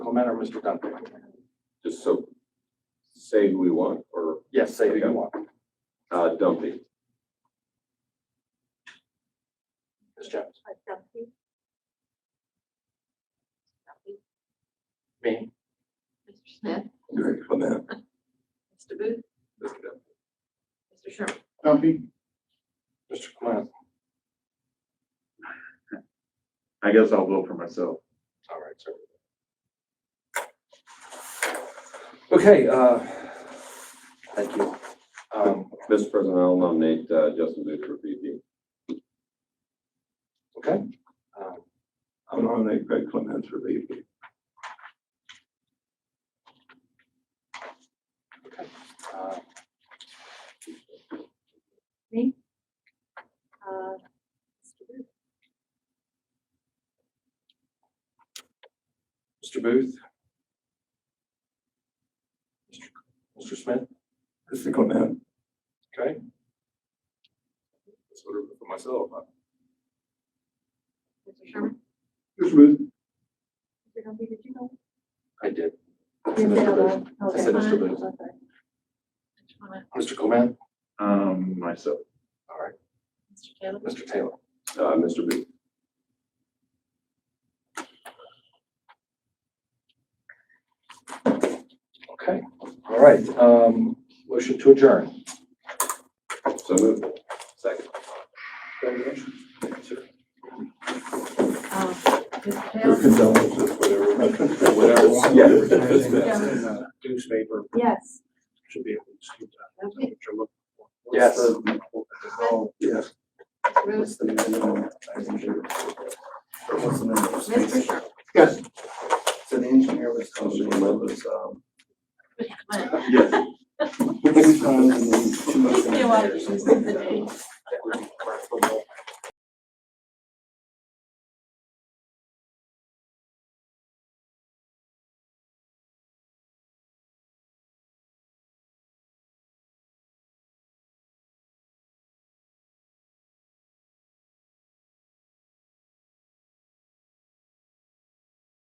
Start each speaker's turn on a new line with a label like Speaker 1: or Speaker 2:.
Speaker 1: Clement or Mr. Duncan?
Speaker 2: just so, say who we want, or,
Speaker 1: Yes, say who you want.
Speaker 2: uh, Dumpy.
Speaker 1: Ms. Jones?
Speaker 3: Uh, Duffy. Duffy,
Speaker 1: Me.
Speaker 3: Mr. Smith,
Speaker 2: Mr. Clement.
Speaker 3: Mr. Booth,
Speaker 2: Mr. Dumpy.
Speaker 3: Mr. Sherman.
Speaker 1: Duffy. Mr. Clement?
Speaker 4: I guess I'll vote for myself.
Speaker 1: All right, sir. Okay, uh, thank you. Um,
Speaker 2: Mr. President, I'll nominate, uh, Justin Booth for VP.
Speaker 1: okay. Um,
Speaker 2: I'll nominate Greg Clement for VP.
Speaker 1: uh,
Speaker 3: Uh, Mr. Booth,
Speaker 1: Mr. Booth? Mr. Smith?
Speaker 2: Mr. Clement.
Speaker 1: Okay.
Speaker 2: That's what I for myself.
Speaker 3: Mr. Sherman,
Speaker 2: Mr. Booth.
Speaker 3: Mr. Duffy, did you know?
Speaker 1: I did.
Speaker 3: You said
Speaker 1: Mr. Booth.
Speaker 3: hello. Okay.
Speaker 1: I said Mr.
Speaker 3: Fine.
Speaker 1: Booth.
Speaker 3: Okay. Mr. Clement,
Speaker 1: Mr. Clement?
Speaker 4: Um, myself.
Speaker 1: All right.
Speaker 3: Mr. Taylor,
Speaker 1: Mr. Taylor?
Speaker 2: Uh, Mr. Booth.
Speaker 1: Okay. All right. Um, motion to adjourn.
Speaker 2: So moved. Second.
Speaker 3: um, Mr. Taylor,
Speaker 2: Yeah.
Speaker 5: uh, newspaper
Speaker 3: yes,
Speaker 5: should be able to see that.
Speaker 3: Duffy,
Speaker 5: What you're looking for.
Speaker 1: Yes.
Speaker 4: Yes.
Speaker 3: Mr. Booth, Mr. Sherman,
Speaker 4: Yes. So the engineer was
Speaker 2: Mr. Clement was, um,
Speaker 3: Mr. Clement.
Speaker 4: Yes.
Speaker 3: You know, I was just thinking the name.